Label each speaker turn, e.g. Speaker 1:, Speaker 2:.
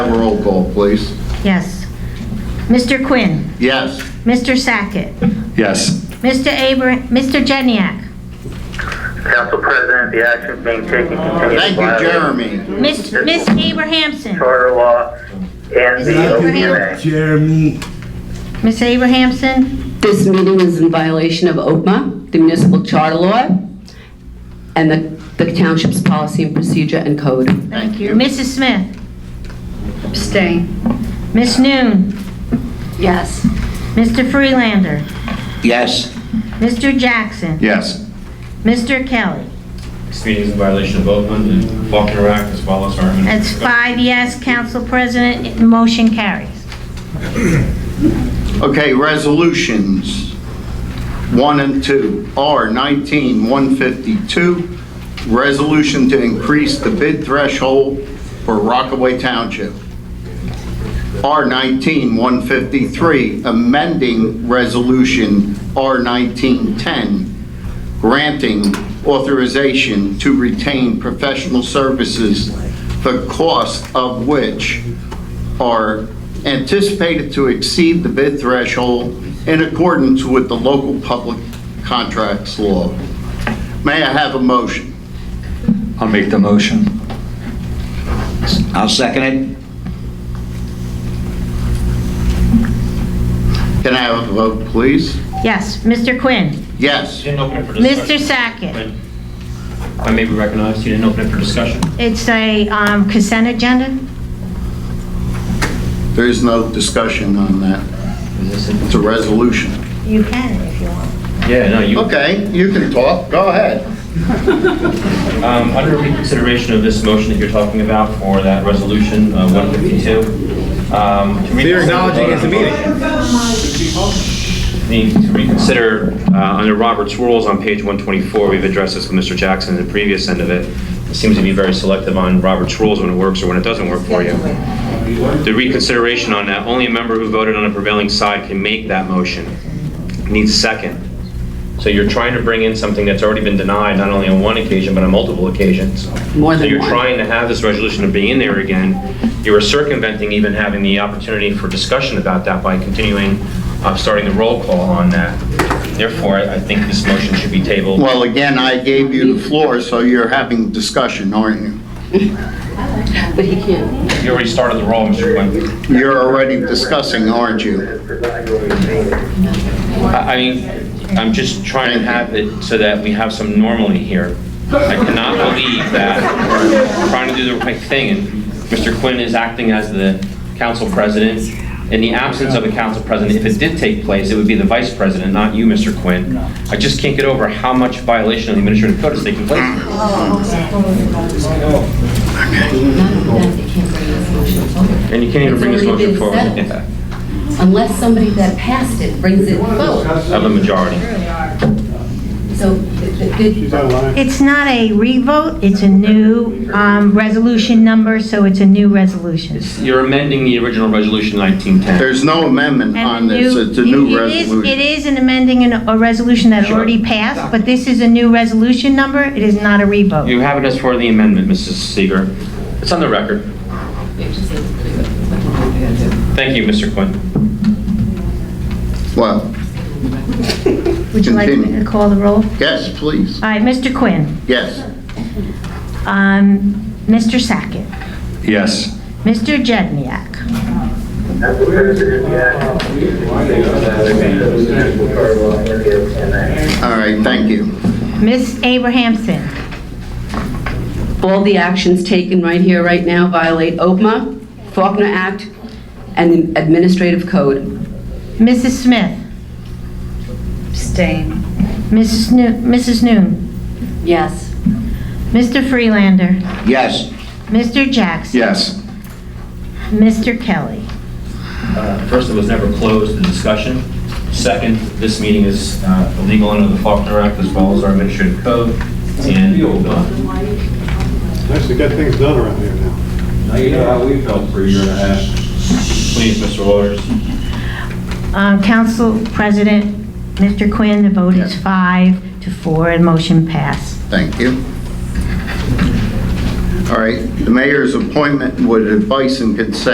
Speaker 1: call, please.
Speaker 2: Yes. Mr. Quinn,
Speaker 1: Yes.
Speaker 2: Mr. Sackett,
Speaker 3: Yes.
Speaker 2: Mr. Abra, Mr. Jenneyack,
Speaker 4: Council President, the actions being taken continue to
Speaker 1: Thank you,
Speaker 4: violate
Speaker 1: Jeremy.
Speaker 2: Miss Miss Abrahamson,
Speaker 4: Charter law and the
Speaker 2: Thank you,
Speaker 4: OPMA.
Speaker 5: Jeremy.
Speaker 2: Miss Abrahamson,
Speaker 6: This meeting is in violation of OPMA, the municipal charter law, and the the township's policy and procedure and code.
Speaker 1: Thank
Speaker 2: Mrs. Smith,
Speaker 6: Abstain.
Speaker 2: Miss Noon,
Speaker 6: Yes.
Speaker 2: Mr. Freelander,
Speaker 1: Yes.
Speaker 2: Mr. Jackson,
Speaker 3: Yes.
Speaker 2: Mr. Kelly.
Speaker 7: This meeting is in violation of Oakland and Faulkner Act as well as our...
Speaker 2: That's five yes, Council President, motion carries.
Speaker 1: Okay, resolutions, one and two. R 19-152, resolution to increase the bid threshold for Rockaway Township. R 19-153, amending resolution R 19-10, granting authorization to retain professional services, the cost of which are anticipated to exceed the bid threshold in accordance with the local public contracts law. May I have a motion?
Speaker 3: I'll make the motion.
Speaker 8: I'll second it.
Speaker 1: Can I have a vote, please?
Speaker 2: Yes, Mr. Quinn,
Speaker 1: Yes.
Speaker 7: You didn't open it for
Speaker 2: Mr.
Speaker 7: discussion.
Speaker 2: Sackett,
Speaker 7: If I may be recognized, you didn't open it for discussion.
Speaker 2: it's a um, consent agenda?
Speaker 1: There is no discussion on that.
Speaker 7: Is this
Speaker 1: It's a resolution.
Speaker 2: You can if you want.
Speaker 7: a- Yeah, no, you...
Speaker 1: Okay, you can talk. Go ahead.
Speaker 7: Um, Under reconsideration of this motion that you're talking about for that resolution, uh, 152. um, to reconsider- Need to reconsider, uh, under Robert's rules on page 124, we've addressed this with Mr. Jackson at the previous end of it. It seems to be very selective on Robert's rules when it works or when it doesn't work for you. The reconsideration on that, only a member who voted on a prevailing side can make that motion. It Needs a second. So you're trying to bring in something that's already been denied, not only on one occasion, but on multiple occasions.
Speaker 6: More
Speaker 7: So
Speaker 6: than
Speaker 7: you're
Speaker 6: one.
Speaker 7: trying to have this resolution of being in there again. You are circumventing even having the opportunity for discussion about that by continuing, uh, starting the roll call on that. Therefore, I I think this motion should be tabled.
Speaker 1: Well, again, I gave you the floor, so you're having discussion, aren't you?
Speaker 6: But he can't.
Speaker 7: You already started the roll, Mr. Quinn.
Speaker 1: You're already discussing, aren't you?
Speaker 7: I I mean, I'm just trying to have it so that we have some normality here. I cannot believe that we're trying to do the right thing, and Mr. Quinn is acting as the council president. In the absence of a council president, if it did take place, it would be the vice president, not you, Mr. Quinn. I just can't get over how much violation of the administrative code is taking place. And you can't even bring this motion forward yeah,
Speaker 6: Unless somebody that passed it brings it forward.
Speaker 7: of a majority.
Speaker 6: So th- th-
Speaker 2: It's not a revote, it's a new um, resolution number, so it's a new resolution.
Speaker 7: You're amending the original resolution 1910.
Speaker 1: There's no amendment
Speaker 2: And
Speaker 1: on this.
Speaker 2: you-
Speaker 1: It's a
Speaker 2: it-
Speaker 1: new
Speaker 2: it is- It
Speaker 1: resolution.
Speaker 2: is an amending an- a resolution that
Speaker 7: Sure.
Speaker 2: already passed, but this is a new resolution number, it is not a revote.
Speaker 7: You have it as for the amendment, Mrs. Seeger. It's on the record. Thank you, Mr. Quinn.
Speaker 1: Well,
Speaker 2: Would you like me to
Speaker 1: continue.
Speaker 2: call the roll?
Speaker 1: yes, please.
Speaker 2: All right, Mr. Quinn,
Speaker 1: Yes.
Speaker 2: um, Mr. Sackett,
Speaker 3: Yes.
Speaker 2: Mr. Jedniak,
Speaker 4: Council President, the actions being taken continue to violate the charter law and the OPMA.
Speaker 1: All right, thank you.
Speaker 2: Miss Abrahamson,
Speaker 6: all the actions taken right here, right now violate OPMA, Faulkner Act, and the administrative code.
Speaker 2: Mrs. Smith,
Speaker 6: Abstain.
Speaker 2: Mrs. Noo- Mrs. Noon,
Speaker 6: Yes.
Speaker 2: Mr. Freelander,
Speaker 8: Yes.
Speaker 2: Mr. Jackson.
Speaker 3: Yes.
Speaker 2: Mr. Kelly.
Speaker 7: Uh, First, it was never closed, the discussion. Second, this meeting is uh, illegal under the Faulkner Act as well as our administrative code. And uh,
Speaker 5: Nice to get things done around here now.
Speaker 9: Now you know how we felt for a year and a half.
Speaker 7: please, Mr. Waters.
Speaker 2: Um, Council President, Mr. Quinn, the vote is five to four, and motion passed.
Speaker 1: Thank you. All right, the mayor's appointment with advice and consent